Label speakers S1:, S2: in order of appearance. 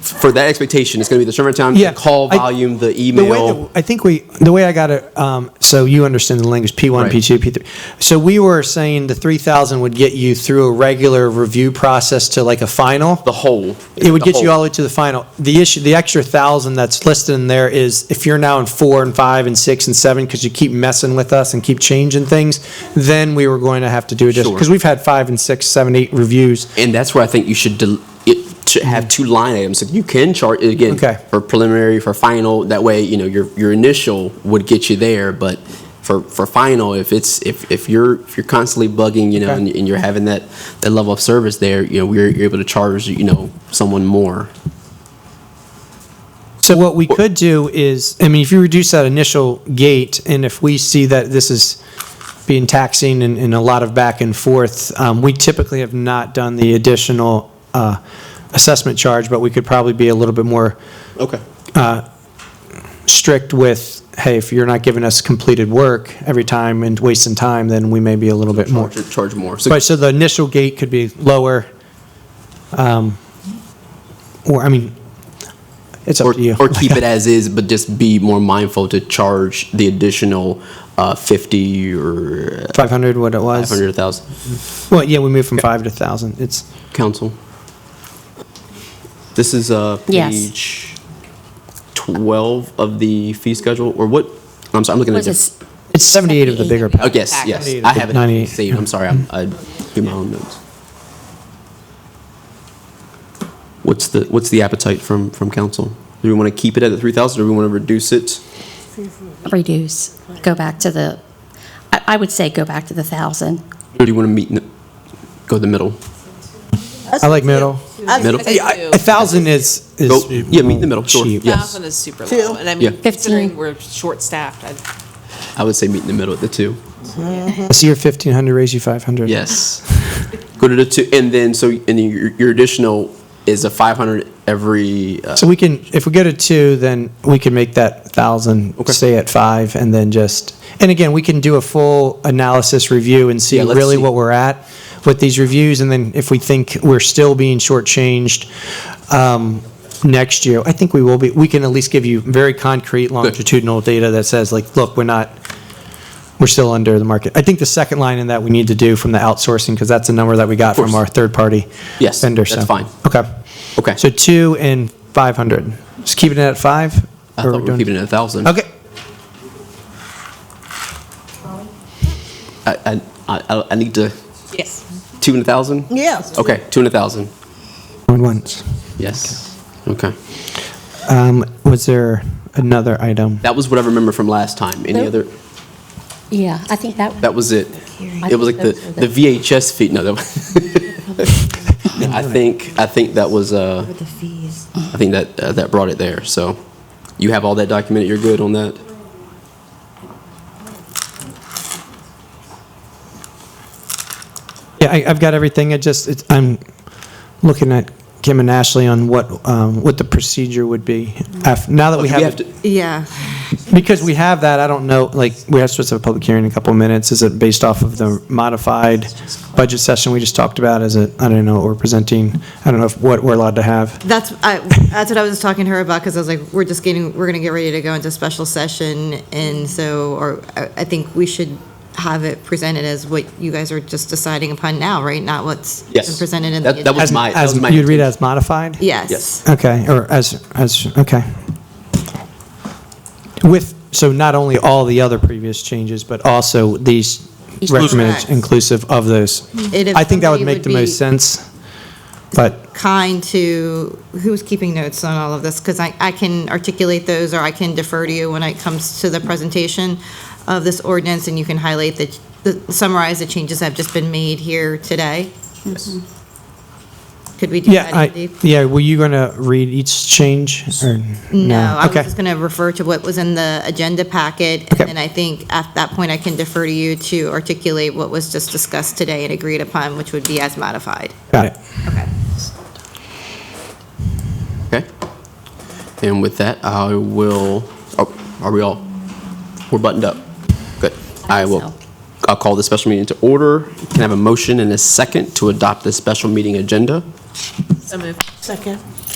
S1: for that expectation, it's going to be the turnaround time,
S2: Yeah,
S1: the call
S2: I-
S1: volume, the
S2: The way
S1: email.
S2: that, I think we, the way I got it, um, so you understand the language, P1,
S1: Right.
S2: P2, P3. So we were saying the 3,000 would get you through a regular review process to like a final.
S1: the whole.
S2: It would
S1: the
S2: get you
S1: whole.
S2: all the way to the final. The issue, the extra thousand that's listed in there is if you're now in four and five and six and seven because you keep messing with us and keep changing things, then we were going to have to do it just
S1: Sure.
S2: because we've had five and six, seven, eight reviews.
S1: And that's where I think you should del- it should have two line items. So you can chart it again
S2: Okay.
S1: for preliminary, for final. That way, you know your your initial would get you there, but for for final, if it's if if you're if you're constantly bugging, you know,
S2: Okay.
S1: and, and you're having that that level of service there, you know, we're you're able to charge you know someone more.
S2: So what we could do is, I mean, if you reduce that initial gate, and if we see that this is being taxing and, and a lot of back and forth, um, we typically have not done the additional, uh, assessment charge, but we could probably be a little bit more
S1: Okay.
S2: strict with, hey, if you're not giving us completed work every time and wasting time, then we may be a little bit more.
S1: Charge, charge more. So
S2: But, so the initial gate could be lower, um, or, I mean, it's
S1: or,
S2: up to you.
S1: or keep it as is, but just be more mindful to charge the additional uh, fifty or
S2: 500, what it was.
S1: five hundred thousand.
S2: Well, yeah, we moved from five to thousand. It's,
S1: Council. This is uh,
S3: Yes.
S1: page 12 of the fee schedule, or what? I'm sorry, I'm looking at
S3: Was
S1: this.
S3: this,
S2: it's seventy-eight of the bigger.
S1: Oh,
S2: pack.
S1: yes, yes.
S2: Ninety-eight.
S1: I have it
S2: Ninety-eight.
S1: saved. I'm sorry, I'm- I do my own notes. What's the, what's the appetite from, from council? Do we want to keep it at the 3,000, or do we want to reduce it?
S3: reduce, go back to the, I, I would say go back to the thousand.
S1: Or do you want to meet, in the- go to the middle?
S2: I like middle.
S4: I was
S1: Middle?
S4: gonna say
S2: I-
S4: two.
S2: A thousand is, is.
S1: Go- yeah, meet in the middle, sure.
S2: cheap.
S1: Yeah.
S4: Thousand is super low, and I mean,
S1: Yeah.
S4: considering
S3: Fifteen.
S4: we're short-staffed, I'd-
S1: I would say meet in the middle at the two.
S2: I see your fifteen hundred, raise you five hundred.
S1: Yes. Go to the two, and then, so, and then your, your additional is a 500 every, uh,
S2: So we can, if we go to two, then we can make that thousand,
S1: Okay.
S2: stay at five, and then just, and again, we can do a full analysis review and see
S1: Yeah, let's
S2: really
S1: see.
S2: what we're at with these reviews, and then if we think we're still being shortchanged, um, next year, I think we will be, we can at least give you very concrete longitudinal data that says, like, look, we're not, we're still under the market. I think the second line in that we need to do from the outsourcing, because that's a number that we got
S1: course.
S2: from our third-party
S1: Yes,
S2: vendor.
S1: that's
S2: so-
S1: fine.
S2: Okay.
S1: okay.
S2: So two and five hundred. Just keeping it at five?
S1: I
S2: Or
S1: thought we were
S2: doing-
S1: keeping it at a thousand.
S2: Okay,
S1: I, I, I, I need to,
S4: yes.
S1: two and a thousand?
S5: Yes.
S1: Okay, two and a thousand,
S2: going once.
S1: yes. Okay.
S2: Um, was there another item?
S1: That was what I remember from last time. Any
S3: Nope.
S1: other,
S3: Yeah, I think that,
S1: that was it. It was like the, the VHS fee, no, that was. No, I think, I think that was, uh,
S6: The fees.
S1: I think that, uh, that brought it there, so. You have all that documented, you're good on that?
S2: Yeah, I, I've got everything. I just, it's, I'm looking at Kim and Ashley on what, um, what the procedure would be. af- Now that we
S1: Do
S2: have, it-
S1: to-
S5: Yeah.
S2: because we have that, I don't know, like, we have supposed to have a public hearing in a couple of minutes. Is it based off of the modified budget session we just talked about? Is it, I don't know, what we're presenting, I don't know if, what we're allowed to have.
S5: That's, I, that's what I was talking to her about, because I was like, we're just getting, we're gonna get ready to go into special session, and so, or, I, I think we should have it presented as what you guys are just deciding upon now, right? Not what's been
S1: Yes.
S5: presented in
S1: That- that
S5: the.
S1: was-
S2: As-
S1: my- that
S2: as-
S1: was my
S2: You'd read
S1: intention.
S2: as modified?
S5: Yes.
S1: Yes.
S2: Okay, or as, as, okay. With, so not only all the other previous changes, but also these recommended
S5: Correct.
S2: inclusive of those.
S5: And if
S2: I think that would
S5: somebody
S2: make
S5: would
S2: the most
S5: be-
S2: sense, but,
S5: Kind to, who's keeping notes on all of this? Because I, I can articulate those, or I can defer to you when it comes to the presentation of this ordinance, and you can highlight the- the, summarize the changes that have just been made here today. Could we do
S2: yeah,
S5: that?
S2: I,
S5: Dave?
S2: yeah, were you going to read each change, or?
S5: No, I was
S2: Okay,
S5: just going to refer to what was in the agenda packet,
S2: Okay.
S5: and then I think at that point, I can defer to you to articulate what was just discussed today and agreed upon, which would be as modified.
S2: got it.
S1: Okay. And with that, I will, oh, are we all, we're buttoned up? Good. I will,
S3: so.
S1: I'll call the special meeting to order. Can I have a motion and a second to adopt the special meeting agenda?
S4: So moved.
S6: Second.